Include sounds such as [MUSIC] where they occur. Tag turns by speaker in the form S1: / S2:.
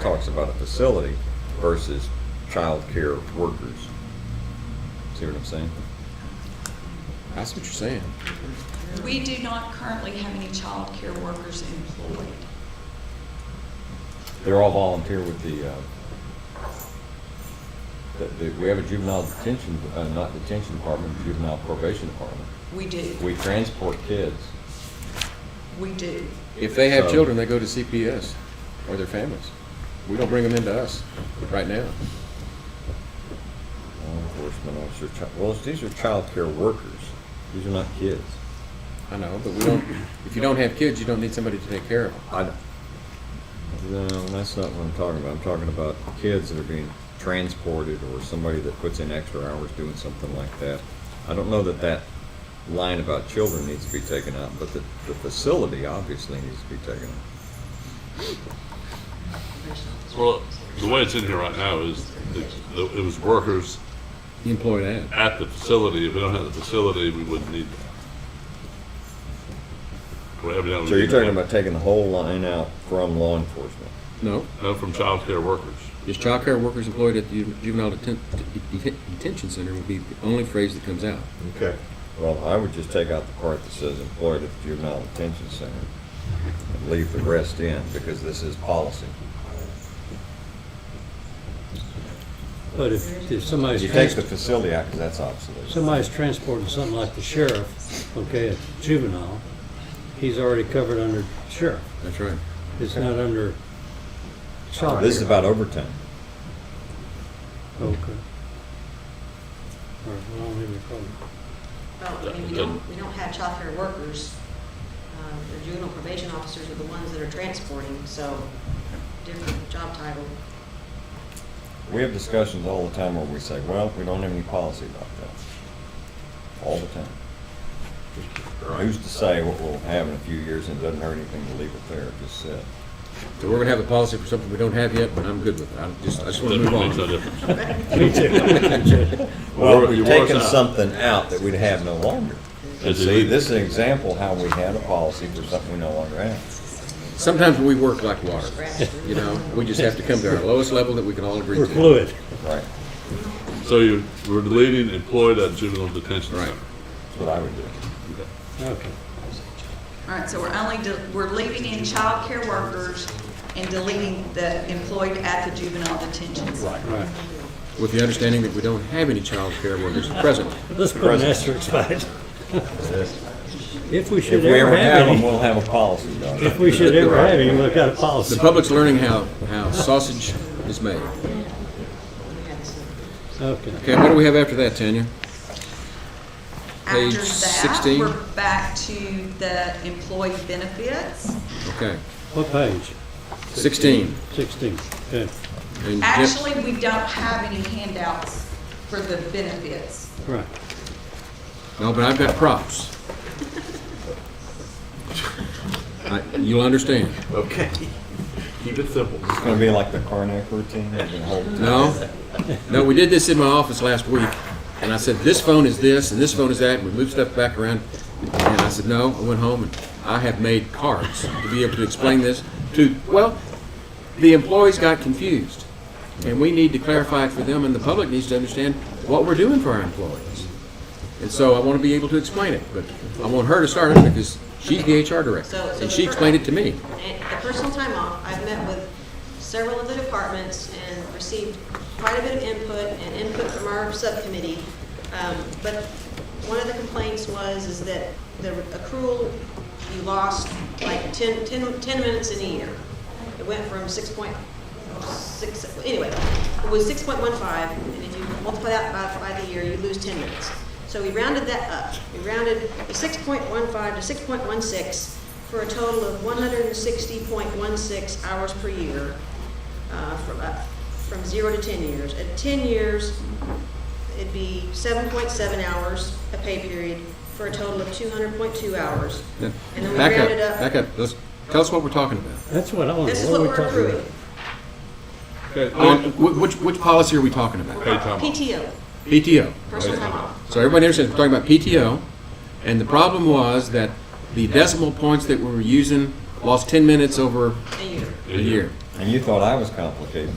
S1: talks about a facility versus childcare workers. See what I'm saying?
S2: That's what you're saying.
S3: We do not currently have any child care workers employed.
S1: They're all volunteer with the, uh, the, the- we have a juvenile detention, uh, not detention department, juvenile probation department.
S3: We do.
S1: We transport kids.
S3: We do.
S2: If they have
S1: So-
S2: children, they go to CPS or their families. We don't bring them into us right now.
S1: Law enforcement officer, chi- well, these are childcare workers. These are not kids.
S2: I know, but we don't, if you don't have kids, you don't need somebody to take care of them.
S1: I, d- no, that's not what I'm talking about. I'm talking about kids that are being transported or somebody that puts in extra hours doing something like that. I don't know that that line about children needs to be taken out, but the, the facility obviously needs to be taken out.
S4: Well, the way it's in here right now is it it was workers
S2: Employed at.
S4: at the facility. If we don't have the facility, we wouldn't need that. Well, evidently we
S1: So you're
S4: need
S1: talking
S4: that.
S1: about taking the whole line out from law enforcement?
S2: No,
S4: No, from childcare workers.
S2: just childcare workers employed at the juvenile deten- deten- detention center would be the only phrase that comes out.
S1: Okay. Well, I would just take out the part that says employed at the juvenile detention center and leave the rest in because this is policy.
S5: But if, if somebody's,
S1: You take the
S5: trans-
S1: facility out because that's obsolete.
S5: somebody's transporting something like the sheriff, okay, a juvenile, he's already covered under sheriff.
S2: That's right.
S5: It's not under child.
S1: This is
S5: care.
S1: about overtime.
S5: Okay. All right, well, I don't have any problem.
S6: Well, I mean, we don't, we don't have childcare workers. Um, The juvenile probation officers are the ones that are transporting, so different job title.
S1: We have discussions all the time where we say, well, we don't have any policy about that. All the time. Who's to say what we'll have in a few years and it doesn't hurt anything to leave it there, just sit.
S2: So we're gonna have a policy for something we don't have yet, but I'm good with it. I just, I just wanna move
S4: That makes no
S2: on.
S4: difference.
S1: [LAUGHS] Well,
S4: Well,
S1: we've
S4: you wore us
S1: taken
S4: out.
S1: something out that we'd have no longer. And [LAUGHS]
S4: Yes,
S1: see,
S4: it-
S1: this is an example how we had a policy for something we no longer have.
S2: Sometimes we work like water,
S6: Grassroots.
S2: you know? We just have to come to our lowest level that we can all agree to.
S5: We're fluid.
S1: Right,
S4: So you were deleting employed at juvenile detention
S2: Right.
S4: center.
S1: that's what I would do.
S5: Okay.
S3: All right, so we're only, de- we're leaving in child care workers and deleting the employed at the juvenile detention center.
S5: Right.
S2: With the understanding that we don't have any child care workers present.
S5: Let's put an asterisk by it. If we
S1: If
S5: should
S1: we
S5: ever
S1: ever have
S5: have
S1: them,
S5: any,
S1: we'll have a policy, Doc.
S5: if
S1: [LAUGHS]
S5: we should ever have any, we've got a policy.
S2: The public's learning how, how sausage is made.
S5: Okay.
S2: Okay, what do we have after that, Tanya? Page
S3: After that,
S2: 16.
S3: we're back to the employee benefits.
S2: Okay,
S5: What page?
S2: sixteen.
S5: Sixteen. Okay,
S2: And Jen-
S3: Actually, we don't have any handouts for the benefits.
S5: right.
S2: No, but I've got props. I- You'll understand.
S7: Okay. Keep it simple.
S1: It's gonna be like the Karnak routine, we're gonna hold
S2: No? No, we did this in my office last week, and I said, this phone is this, and this phone is that, and we moved stuff back around. And I said, no, I went home, and I have made cards to be able to explain this to, well, the employees got confused. And we need to clarify it for them, and the public needs to understand what we're doing for our employees. And so I want to be able to explain it, but I want her to start it because she's the HR director,
S6: So- so
S2: and
S6: the
S2: she
S6: fir-
S2: explained it to me.
S6: And the personal time off, I've met with several of the departments and received quite a bit of input and input from our subcommittee. Um, But one of the complaints was is that the accrual, you lost like 10, 10 10 minutes in a year. It went from 6.6, anyway, it was 6.15, and if you multiply that by, by the year, you lose 10 minutes. So we rounded that up. We rounded the 6.15 to 6.16, for a total of 160.16 hours per year, uh, from, uh, from zero to 10 years. At 10 years, it'd be 7.7 hours a pay period, for a total of 200.2 hours.
S2: Yeah.
S6: And then we
S2: Back up,
S6: rounded up.
S2: back up, let's, tell us what we're talking about.
S5: That's what I want.
S6: This is
S5: are
S6: what
S5: we
S6: we're
S5: talking about?
S6: accruing.
S4: Okay,
S2: On, wh- which, which policy are we talking about?
S4: Paid time off.
S6: PTO,
S2: PTO.
S6: personal time off.
S2: So everybody understands, we're talking about PTO, and the problem was that the decimal points that we were using lost ten minutes over
S6: a year.
S2: a year.
S1: And you thought I was complicated.